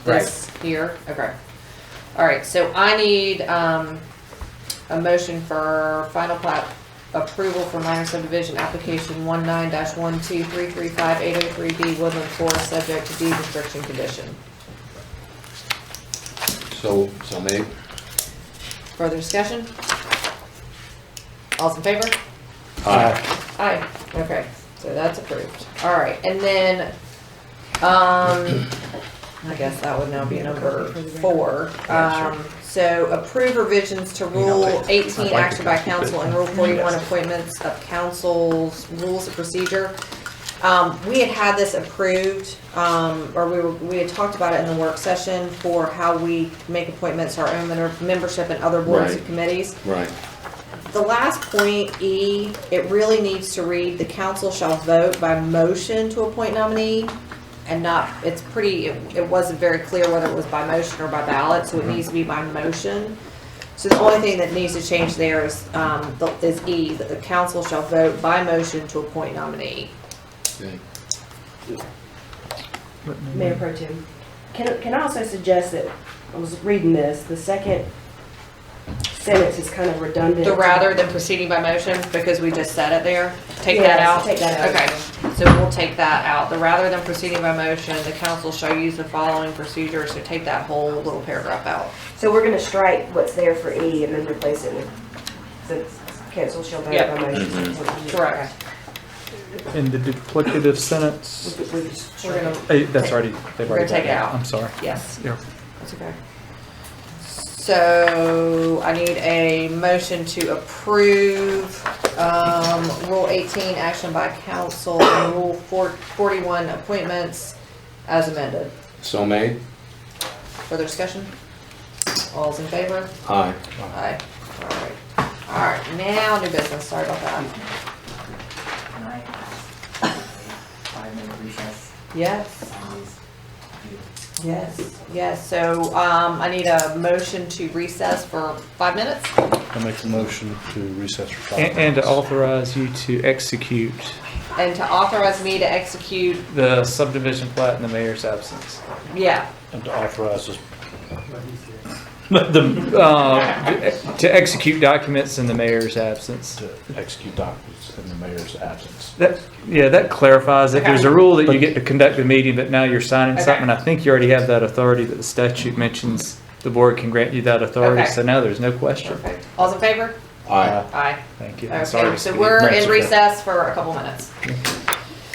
This here, okay. All right, so I need, um, a motion for final plat approval for minor subdivision application one nine dash one two three three five eight oh three B Woodland Forest, subject to deed restriction condition. So, so maybe, Further discussion? All's in favor? uh, Aye, okay, so that's approved. All right, and then, um, I guess that would now be number four. Um, so approve revisions to rule eighteen, action by council, and rule forty-one, appointments of councils, rules of procedure. Um, we had had this approved, um, or we were, we had talked about it in the work session for how we make appointments, to our own member- membership and other boards and Right. committees. right, The last point, E, it really needs to read, the council shall vote by motion to appoint nominee and not, it's pretty, it it wasn't very clear whether it was by motion or by ballot, so it needs to be by motion. So the only thing that needs to change there is, um, the- is E, that the council shall vote by motion to appoint nominee. okay. Mayor Pro Tem, can, can I also suggest that, I was reading this, the second sentence is kind of redundant. The rather than proceeding by motion, because we just said it there, take that Yes, out? take that out. Okay, so we'll take that out. The rather than proceeding by motion, the council shall use the following procedure, so take that whole little paragraph out. So we're gonna strike what's there for E and then replace it with, since council shall vote Yeah. by motion. Correct. In the duplicative sentence, We- we just We're strike it. gonna, eh, that's already, they've We're gonna already got take it that. out. I'm sorry. yes, Yeah. that's okay. So I need a motion to approve, um, Rule eighteen, action by council, and Rule four, forty-one, appointments as amended. So made, Further discussion? All's in favor? aye. Aye. Alright, alright, now new business, sorry about that. Can I ask a five-minute recess? Yes, Um, you- yes, yes, so, um, I need a motion to recess for five minutes? I make a motion to recess for five And, minutes. and to authorize you to execute And to authorize me to execute, the subdivision plat in the mayor's absence. yeah, And to authorize us, The, uh, to execute documents in the mayor's absence. to execute documents in the mayor's absence. That, yeah, that clarifies it. There's a rule that you get to conduct a meeting, but now you're signing Okay. something. I think you already have that authority that the statute mentions the board can grant you that authority. Okay. So now there's no question. perfect. All's in favor? Aye. Aye. Thank you. I'm sorry Okay, to so speak. we're That's in okay. recess for a couple minutes.